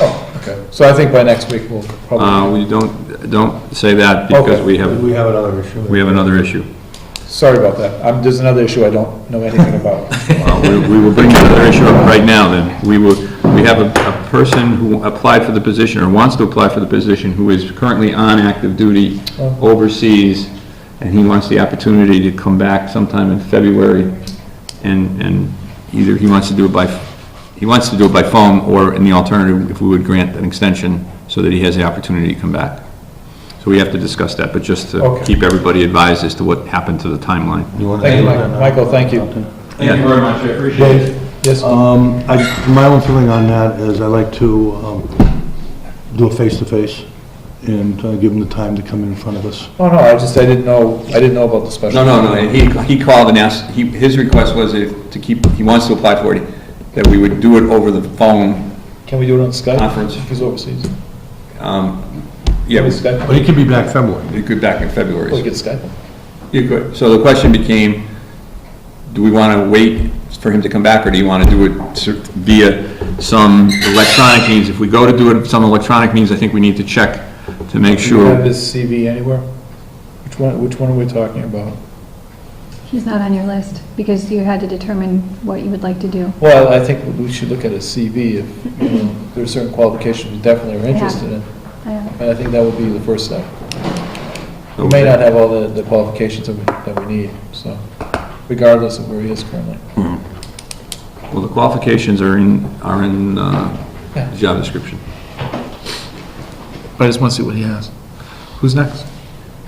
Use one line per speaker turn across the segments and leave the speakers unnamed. Oh, Okay, so I think by next week we'll
Uh,
probably,
we don't, don't say that because
Okay.
we have,
We have another issue.
we have another issue.
sorry about that. Um, there's another issue I don't know anything about.
Uh, We we will bring another issue up right now then. We will, we have a, a person who applied for the position or wants to apply for the position who is currently on active duty overseas and he wants the opportunity to come back sometime in February and, and either he wants to do it by, he wants to do it by phone or in the alternative, if we would grant an extension so that he has the opportunity to come back. So we have to discuss that, but just to
Okay.
keep everybody advised as to what happened to the timeline.
You wanna
Thank you,
do
Mike-
that now?
Michael, thank you.
Yeah.
Thank you very much, I appreciate it.
Dave,
Yes,
um, I, my own feeling on that is I like to, um, do a face-to-face and uh, give them the time to come in front of us.
oh no, I just, I didn't know, I didn't know about the special.
No, no, no, he, he called and asked, he, his request was if, to keep, he wants to apply for it, that we would do it over the phone,
Can we do it on Skype?
Conference.
He's overseas.
um, yeah,
Can we
we
Skype?
But it could be back February.
we could back in February.
We could Skype. him.
You could, so the question became, do we want to wait for him to come back, or do you want to do it sur- via some electronic means? If we go to do it some electronic means, I think we need to check to make
Do you have
sure.
his CV anywhere? Which one, which one are we talking about?
He's not on your list because you had to determine what you would like to do.
Well, I think we should look at his CV if, you know, there are certain qualifications we definitely are
Yeah.
interested in.
Uh,
And I think that would be the first step. We may not have all the, the qualifications that we, that we need, so, regardless of where he is currently.
Well, the qualifications are in, are in, uh,
Yeah.
the job description.
But I just want to see what he has. Who's next?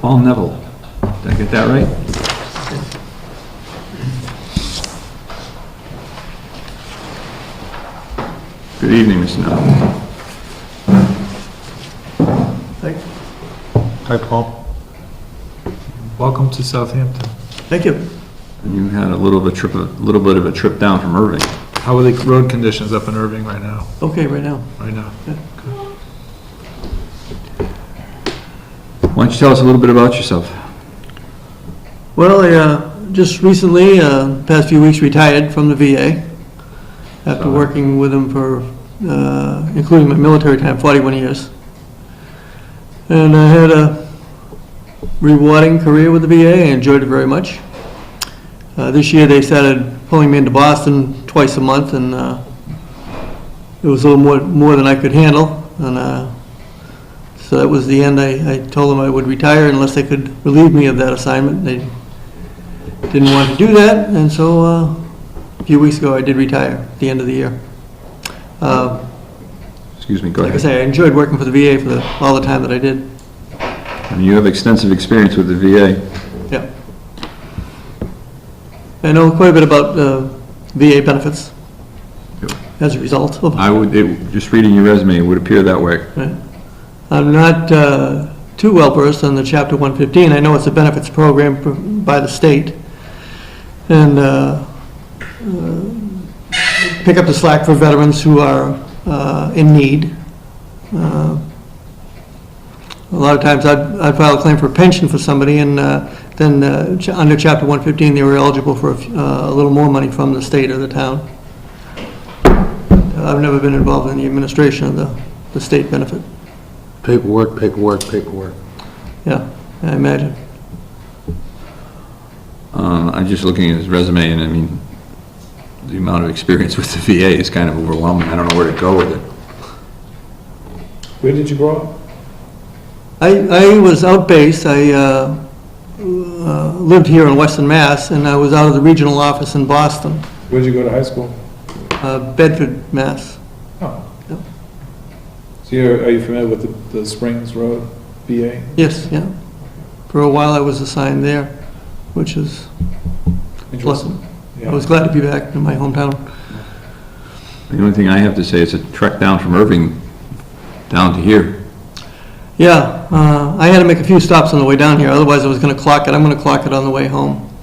Paul Neville, did I get that right? Good evening, Mr. Neville.
Hi, Paul.
Welcome to Southampton.
Thank you.
You had a little of a trip, a little bit of a trip down from Irving.
How are the road conditions up in Irving right now,
Okay, right now.
right now?
Why don't you tell us a little bit about yourself?
Well, I uh, just recently, uh, past few weeks, retired from the VA after
Sorry.
working with them for, uh, including my military time, 41 years. And I had a rewarding career with the VA. I enjoyed it very much. Uh, This year, they started pulling me into Boston twice a month, and uh, it was a little more more than I could handle. And uh, So that was the end. I, I told them I would retire unless they could relieve me of that assignment. They didn't want to do that, and so, uh, a few weeks ago, I did retire, at the end of the year. Uh,
Excuse me, go
Like I
ahead.
say, I enjoyed working for the VA for the, all the time that I did.
I mean, You have extensive experience with the VA.
Yeah. I know quite a bit about uh, VA benefits
Yep.
as a result of,
I would, it- just reading your resume, it would appear that way.
I'm not uh, too well versed on the Chapter 115. I know it's a benefits program pr- by the state. And uh, uh, pick up the slack for veterans who are uh, in need. Uh, A lot of times, I'd I'd file a claim for pension for somebody, and uh, then, uh, ch- under Chapter 115, they were eligible for a f- uh, a little more money from the state or the town. I've never been involved in the administration of the the state benefit.
Paperwork, paperwork, paperwork.
Yeah, I imagine.
Uh, I'm just looking at his resume, and I mean, the amount of experience with the VA is kind of overwhelming. I don't know where to go with it.
Where did you grow up?
I, I was out-based, I uh, uh, lived here in Western Mass, and I was out of the regional office in Boston,
Where did you go to high school?
uh, Bedford, Mass.
Oh.
Yep.
So you're, are you familiar with the, the Springs Road BA?
Yes, yeah. For a while, I was assigned there, which is pleasant. I was glad to be back in my hometown.
The only thing I have to say is a trek down from Irving down to here.
Yeah, uh, I had to make a few stops on the way down here, otherwise I was going to clock it. I'm going to clock it on the way home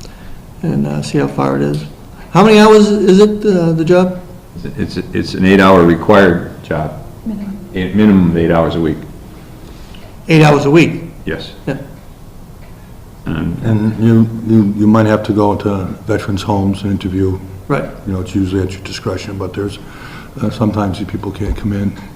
and uh, see how far it is. How many hours is it, uh, the job?
It's, it's an eight-hour required job,
minimum.
a minimum of eight hours a week,
Eight hours a week?
yes.
Yeah.
And
And you, you, you might have to go to veterans' homes and interview,
Right.
you know, it's usually at your discretion, but there's, uh, sometimes people can't come in